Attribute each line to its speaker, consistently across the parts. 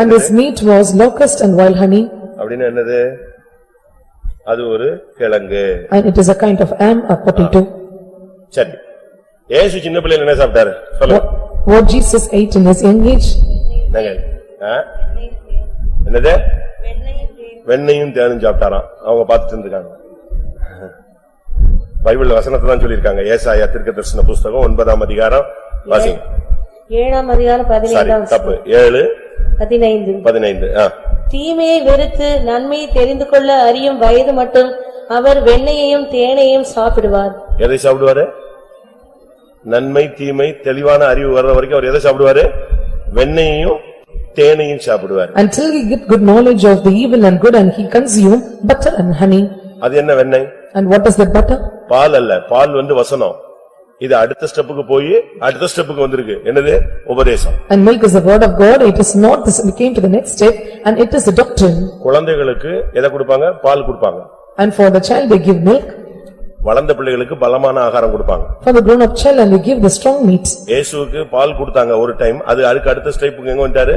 Speaker 1: And his meat was locust and wild honey,
Speaker 2: அப்படின்னு என்னது? அது ஒரு கிழங்கு.
Speaker 1: and it is a kind of am, a potato.
Speaker 2: சரி. ஏசு சின்ன பிள்ளையில என்ன சாப்பிட்டாரு? சொல்லுங்க.
Speaker 1: What what Jesus ate in his young age,
Speaker 2: என்னங்க? ஆ? என்னது? வெண்ணையும் தேனும் சாப்பிட்டாராம். அவங்க பார்த்துட்டு இருந்திருக்காங்க. பைபிள் வசனத்தை தான் சொல்லியிருக்காங்க. ஏசாயா தீர்க்கதரிசன புஸ்தகம் ஒன்பதாம் அதிகாரம் வாசிங்க.
Speaker 3: ஏழாம் அதிகாரம்
Speaker 2: சாரி
Speaker 3: பதினைந்தாம்
Speaker 2: தப்பு. ஏழு
Speaker 3: பதினைந்து
Speaker 2: பதினைந்து. ஆ.
Speaker 3: தீமையை வெறுத்து நன்மையை தெரிந்து கொள்ள அறியும் வயது மட்டும் அவர் வெண்ணையையும் தேனையும் சாப்பிடுவார்
Speaker 2: எதை சாப்பிடுவாரு? நன்மை, தீமை, தெளிவான அறிவு வர்ற வரைக்கும் அவர் எதை சாப்பிடுவாரு? வெண்ணையையும் தேனையும் சாப்பிடுவாரு.
Speaker 1: until he get good knowledge of the evil and good, and he consume butter and honey.
Speaker 2: அது என்ன வெண்ணெய்?
Speaker 1: And what is that butter?
Speaker 2: பால் அல்ல, பால் வந்து வசனம். இது அடுத்த ஸ்டெப்புக்கு போய் அடுத்த ஸ்டெப்புக்கு வந்திருக்கு. என்னது? உபதேசம்.
Speaker 1: And milk is the word of God, it is not, this we came to the next step, and it is the doctrine.
Speaker 2: குழந்தைகளுக்கு எதை கொடுப்பாங்க? பால் கொடுப்பாங்க.
Speaker 1: And for the child they give milk,
Speaker 2: வளர்ந்த பிள்ளைகளுக்கு பலமான ஆகாரம் கொடுப்பாங்க.
Speaker 1: for the grown-up child and they give the strong meat.
Speaker 2: இயேசுவுக்கு பால் கொடுத்தாங்க ஒரு டைம். அது அதுக்கு அடுத்த ஸ்டெப்புக்கு எங்க வந்துட்டாரு?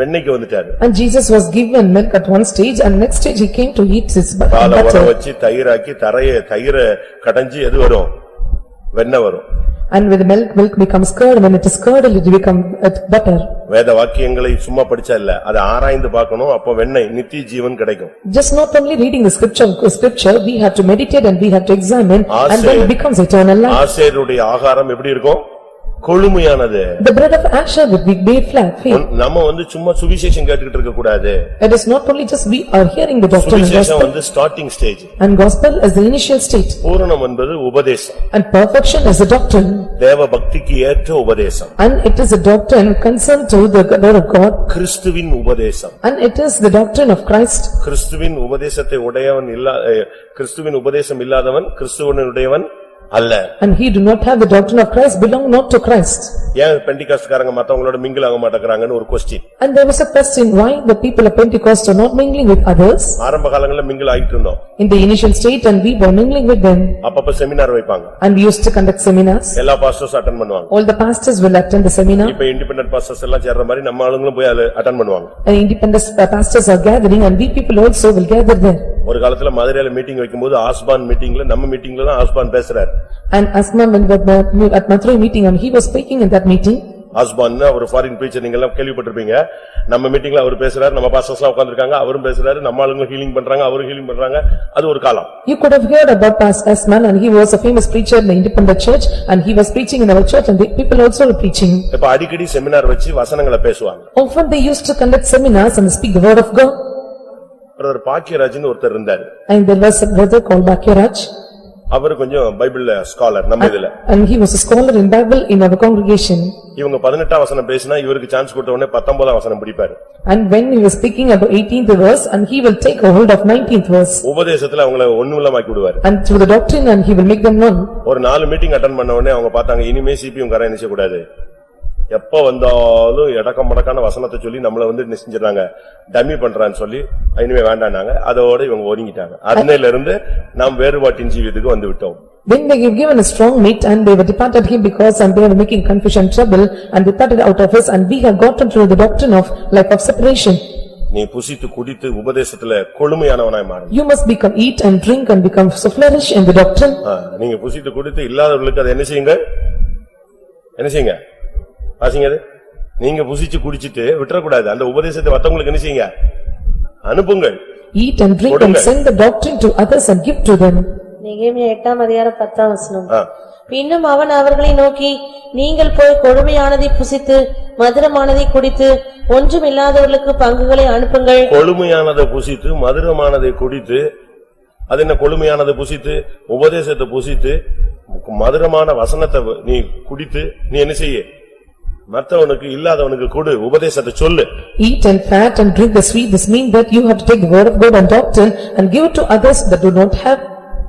Speaker 2: வெண்ணெய்க்கு வந்துட்டாரு.
Speaker 1: And Jesus was given milk at one stage, and next stage he came to eat his bu-
Speaker 2: பாலை வர
Speaker 1: butter.
Speaker 2: வச்சு தயிராக்கி தரைய தயிர கடைஞ்சு எது வரும்? வெண்ணெய் வரும்.
Speaker 1: And with milk, milk becomes curd, when it is curdled, it become uh, butter.
Speaker 2: வேத வாக்கியங்களை சும்மா படிச்சா இல்ல. அதை ஆராய்ந்து பார்க்கணும். அப்ப வெண்ணெய் நித்திய ஜீவன் கிடைக்கும்.
Speaker 1: Just not only reading the scripture, scripture, we have to meditate and we have to examine, and then
Speaker 2: Asher.
Speaker 1: it becomes eternal life.
Speaker 2: ஆசேருடைய ஆகாரம் எப்படி இருக்கும்? கொழுமையானது.
Speaker 1: The bread of Asher would be made flat, faith.
Speaker 2: உன்- நம்ம வந்து சும்மா சுவிசேஷம் கேட்டுக்கிட்டு இருக்க கூடாது.
Speaker 1: It is not only just we are hearing the doctrine and
Speaker 2: சுவிசேஷம்
Speaker 1: gospel,
Speaker 2: வந்து starting stage.
Speaker 1: and gospel is the initial state,
Speaker 2: பூரணம் என்பது உபதேசம்.
Speaker 1: and perfection is the doctrine,
Speaker 2: தேவ பக்திக்கு ஏற்ற உபதேசம்.
Speaker 1: and it is a doctrine concerned to the word of God,
Speaker 2: கிறிஸ்துவின் உபதேசம்.
Speaker 1: and it is the doctrine of Christ.
Speaker 2: கிறிஸ்துவின் உபதேசத்தை உடையவன் இல்லா, அஹ், கிறிஸ்துவின் உபதேசம் இல்லாதவன் கிறிஸ்துவனுடையவன் அல்ல.
Speaker 1: And he do not have the doctrine of Christ belong not to Christ.
Speaker 2: ஏன் பெண்டிகாஸ்ட்காரங்க மத்தவங்களோட மிங்கில் ஆக மாட்டேங்கறாங்கன்னு ஒரு question.
Speaker 1: And there was a question why the people of Pentecost are not mingling with others
Speaker 2: ஆரம்ப காலங்கள்ல மிங்கில் ஆயிட்டு இருந்தோம்.
Speaker 1: in the initial state and we were mingling with them.
Speaker 2: அப்பப்ப செமினார் வைப்பாங்க.
Speaker 1: And we used to conduct seminars.
Speaker 2: எல்லா pastors attend பண்ணுவாங்க.
Speaker 1: All the pastors will attend the seminar
Speaker 2: இப்ப independent pastors எல்லாம் சேர்ற மாதிரி நம்ம ஆளுங்களும் போய் அட்டன் பண்ணுவாங்க.
Speaker 1: and independent uh, pastors are gathering and we people also will gather there.
Speaker 2: ஒரு காலத்துல மதுரையில மீட்டிங் வைக்கும்போது ஆஸ்பான் மீட்டிங்ல நம்ம மீட்டிங்ல தான் ஆஸ்பான் பேசுறாரு.
Speaker 1: And Asman when we were at Mathura meeting and he was speaking in that meeting
Speaker 2: ஆஸ்பான் அவர் ஃபாரின் preacher நீங்க எல்லாம் கேள்விப்பட்டிருப்பீங்க. நம்ம மீட்டிங்ல அவர் பேசுறாரு, நம்ம பாஸ்டர்ஸ்லாம் உட்கார்ந்திருக்காங்க, அவரும் பேசுறாரு, நம்ம ஆளுங்க ஹீலிங் பண்றாங்க, அவரும் ஹீலிங் பண்றாங்க. அது ஒரு காலம்.
Speaker 1: you could have heard about Pas- Asman and he was a famous preacher in the independent church and he was preaching in our church and the people also were preaching.
Speaker 2: இப்ப அடிக்கடி seminar வச்சு வசனங்களை பேசுவாங்க.
Speaker 1: Often they used to conduct seminars and speak the word of God
Speaker 2: ஒரு பாக்கியராஜ்னு ஒருத்தர் இருந்தாரு.
Speaker 1: and there was a brother called Bakiraj.
Speaker 2: அவர் கொஞ்சம் பைபிள்ல ஸ்காலர் நம்ம இதுல.
Speaker 1: And he was a scholar in Bible in our congregation.
Speaker 2: இவங்க பதினெட்டாம் வசனம் பேசினா இவருக்கு சான்ஸ் கொடுத்த உடனே பத்தொன்பதாம் வசனம் பிடிப்பாரு.
Speaker 1: And when he was speaking about eighteenth verse and he will take a hold of nineteenth verse.
Speaker 2: உபதேசத்துல அவங்கள ஒண்ணுமில்லமாக்கி விடுவாரு.
Speaker 1: And through the doctrine and he will make them known.
Speaker 2: ஒரு நாலு மீட்டிங் அட்டன் பண்ண உடனே அவங்க பார்த்தாங்க இனிமே சிபியும் கரை நிச்சய கூடாது. எப்ப வந்தாலும் எடக்கம் மடக்கான வசனத்தை சொல்லி நம்மள வந்து நிச்சயறாங்க. டம்மி பண்றான்னு சொல்லி இனிமே வேண்டாம்னாங்க. அதோட இவங்க ஒதுங்கிட்டாங்க. அதனையில இருந்து நாம் வேறுபாட்டின் ஜீவியத்துக்கு வந்து விட்டோம்.
Speaker 1: Then they have given a strong meat and they were departed him because and they were making confusion trouble and departed out of us and we have gotten through the doctrine of life of separation.
Speaker 2: நீ புசித்து குடித்து உபதேசத்துல கொழுமையானவனாய் மாறுங்க.
Speaker 1: You must become eat and drink and become so flourish in the doctrine.
Speaker 2: நீங்க புசித்து குடித்து இல்லாதவர்களுக்கு அதை என்ன செய்யுங்க? என்ன செய்யுங்க? வாசிங்க அது. நீங்க புசிச்சு குடிச்சிட்டு விட்டுறக்கூடாது. அந்த உபதேசத்தை மத்தவங்களுக்கு என்ன செய்யுங்க? அனுப்புங்கள்.
Speaker 1: Eat and drink and
Speaker 2: கொடுங்க.
Speaker 1: send the doctrine to others and give to them.
Speaker 3: நிகேமியா எட்டாம் அதிகாரம் பத்தாம் வசனம்
Speaker 2: ஆ.
Speaker 3: பின்னும் அவன் அவர்களை நோக்கி நீங்கள் போய் கொடுமையானதை புசித்து மதுரமானதை குடித்து ஒன்றுமில்லாதவர்களுக்கு பங்குகளை அனுப்புங்கள்
Speaker 2: கொழுமையானதை புசித்து, மதுரமானதை குடித்து, அது என்ன கொழுமையானதை புசித்து, உபதேசத்தை புசித்து, மதுரமான வசனத்தை நீ குடித்து, நீ என்ன செய்ய? மத்தவனுக்கு இல்லாதவனுக்கு கொடு, உபதேசத்தை சொல்லு.
Speaker 1: Eat and fat and drink the sweet. This means that you have to take the word of God and doctrine and give it to others that do not have.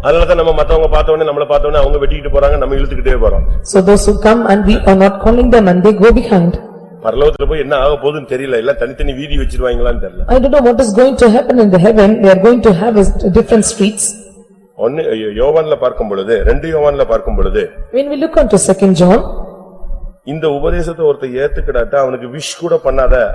Speaker 2: அதனாலதான் நம்ம மத்தவங்க பார்த்தவனே, நம்மள பார்த்தவனே, அவங்க வெட்டிக்கிட்டு போறாங்க, நம்ம இழுத்துக்கிட்டே போறோம்.
Speaker 1: So those who come and we are not calling them and they go behind.
Speaker 2: பரலோகத்துல போய் என்ன ஆக போகுதுன்னு தெரியல, எல்லாம் தனித்தனி வீதி வச்சிருவாங்களான்னு தெரியல.
Speaker 1: I don't know what is going to happen in the heaven, they are going to have is- different streets.
Speaker 2: ஒன்னு யோவான்ல பார்க்கும் பொழுது, ரெண்டு யோவான்ல பார்க்கும் பொழுது,
Speaker 1: When we look on to second John,
Speaker 2: இந்த உபதேசத்தை ஒருத்தன் ஏத்துக்கிடாட்டா, அவனுக்கு விஷ் கூட பண்ணாத,